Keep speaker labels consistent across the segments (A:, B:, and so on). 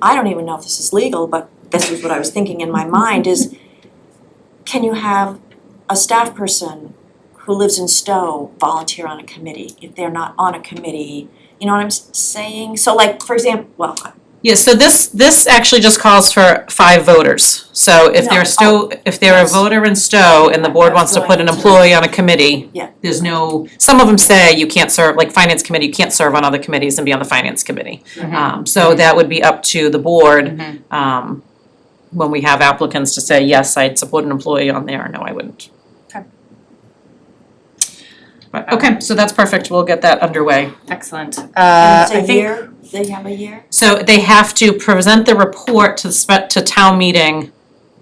A: I don't even know if this is legal, but this is what I was thinking in my mind is can you have a staff person who lives in Stowe volunteer on a committee if they're not on a committee? You know what I'm s- saying? So like, for example, well,
B: Yeah, so this, this actually just calls for five voters. So if
A: No, oh,
B: they're Stowe, if they're a
A: yes.
B: voter in Stowe and the board
A: That's
B: wants to
A: going
B: put an
A: to-
B: employee on a committee,
A: Yeah.
B: there's no, some of them say you can't serve, like finance committee, you can't serve on other committees and be on the finance committee.
A: Mm-hmm.
C: Mhm.
B: Um, so that would be up to the board, um, when we have applicants to say, yes, I'd support an employee on there, or no, I wouldn't.
C: Okay.
B: But, okay, so that's perfect, we'll get that underway.
C: Excellent. Uh,
A: and
C: I
A: it's a
C: think.
A: year, they have a year?
B: So they have to present the report to the spe- to town meeting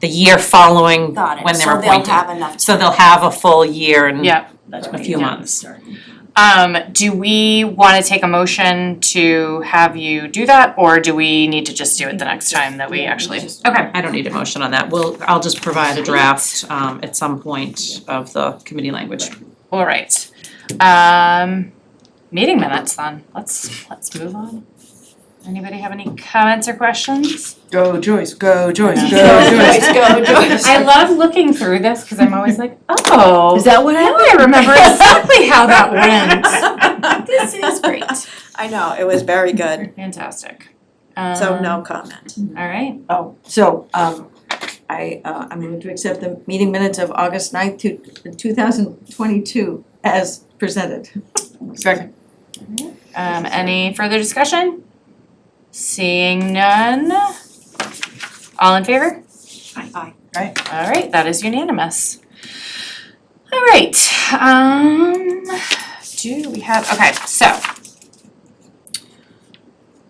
B: the year following
A: Got it.
B: when they're
A: So they'll
B: appointed.
A: have enough.
B: So
A: time.
B: they'll have a full year and
C: Yeah.
B: Mm. a few months.
C: Um, do we want to take a motion to have you do that, or do we need to just do it the next time that we actually? Okay,
B: I don't need a motion on that, we'll, I'll just provide a draft um at some point of the committee language.
C: all right. Um, meeting minutes then. Let's let's move on. Anybody have any comments or questions?
D: Go Joyce, go Joyce, go
A: Go,
D: Joyce.
A: Joyce, go, Joyce.
C: I love looking through this because I'm always like, oh,
D: Is that what
C: now I remember exactly how that went.
D: went?
C: This is great.
A: I know, it was very good,
C: Fantastic.
A: so
C: Um,
A: no comment.
C: All right.
D: Oh, so um I uh I'm going to accept the meeting minutes of August ninth to two thousand twenty-two as presented. Second.
C: Um, any further discussion? Seeing none. All in favor?
A: Aye.
C: All right, that is unanimous. All right, um, do we have, okay, so.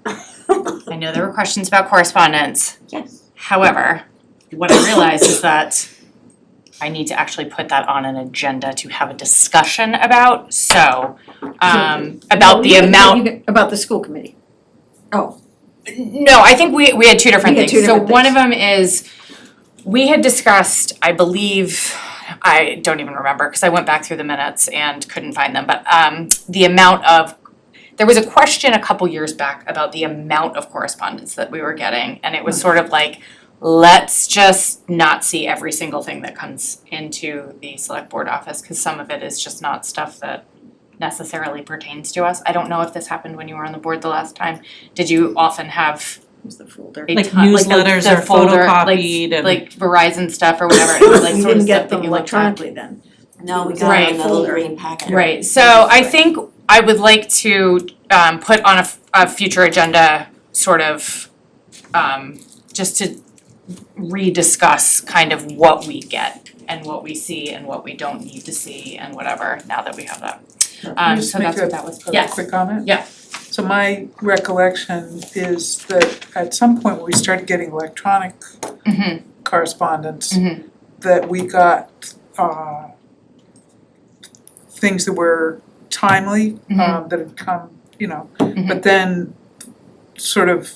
C: I know there were questions about correspondence.
D: Yes.
C: However, what I realize is that I need to actually put that on an agenda to have a discussion about, so, um, about the amount
D: About the school committee.
C: no, I think we we had two different
D: We had
C: things.
D: two different
C: So one of them is we had discussed, I believe, I don't even remember because I went back through the minutes and couldn't find them, but um the amount of there was a question a couple years back about the amount of correspondence that we were getting and it was
D: Hmm.
C: sort of like let's just not see every single thing that comes into the select board office because some of it is just not stuff that necessarily pertains to us. I don't know if this happened when you were on the board the last time did you often have
D: Who's the folder?
C: a
B: Like
C: ton, like the,
B: newsletters
C: the
B: are
C: folder,
B: photocopied
C: like,
B: and-
C: like Verizon stuff or whatever, it was like
D: You
C: sort of stuff
D: didn't get
C: that
D: them
C: you looked at.
D: electronically then.
A: No, we
C: Right.
A: got it in the little
D: Folder.
A: green packet.
C: Right, so I think I would like to um put on a f- a future agenda sort of um just to rediscuss kind of what we get and what we see and what we don't need to see and whatever, now that we have that. Um so that's what that was,
E: a
C: yes,
E: quick comment?
C: Yeah.
E: So my recollection is that at some point we started getting electronic
C: Mhm.
E: correspondence
C: Mhm.
E: that we got uh things that were timely,
C: Mm-hmm.
E: um that had come, you know, but then sort of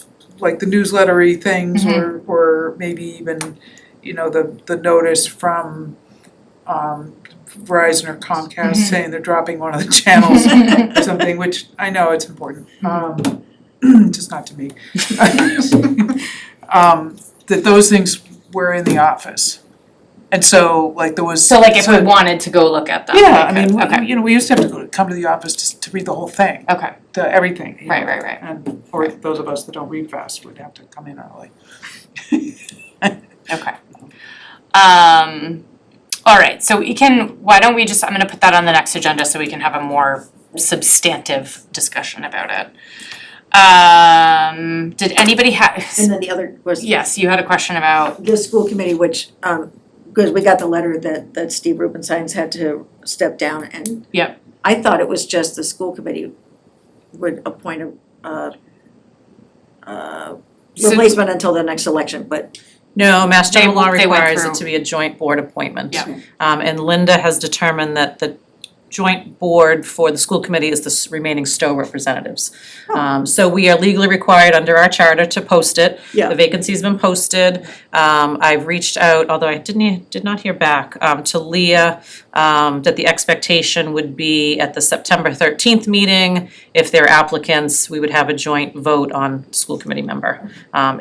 E: like the newslettery things
C: Mm-hmm.
E: or or maybe even, you know, the the notice from um Verizon or Comcast
C: Mm-hmm.
E: saying they're dropping one of the channels or something, which I know it's important, um,
C: Mm-hmm.
E: just not to me. Um, that those things were in the office. And so, like, there was.
C: so like if we wanted to go look at them, we could, okay.
E: Yeah, I mean, we- you know, we used to have to go, come to the office to, to read the whole thing,
C: Okay,
E: the, everything. you know,
C: right, right, right.
E: And, or those of us that don't read fast would have to come in early.
C: Okay. Um, all right, so we can, why don't we just, I'm gonna put that on the next agenda so we can have a more substantive discussion about it. Um, did anybody have,
D: And then the other was
C: yes, you had a question about,
D: the school committee, which um, because we got the letter that that Steve Rubenstein's had to step down and
C: Yep.
D: I thought it was just the school committee would appoint a uh uh
C: So-
D: replacement until the next election, but
B: No, Mass
C: They-
B: General Law
C: they went
B: requires
C: through.
B: it to be a joint board appointment.
C: Yeah.
B: Um, and Linda has determined that the joint board for the school committee is the s- remaining Stowe representatives.
C: Oh.
B: Um, so we are legally required under our charter to post it.
D: Yeah.
B: The vacancy's been posted. Um, I've reached out, although I didn't, he- did not hear back, um, to Leah, um, that the expectation would be at the September thirteenth meeting, if there are applicants, we would have a joint vote on school committee member. Um,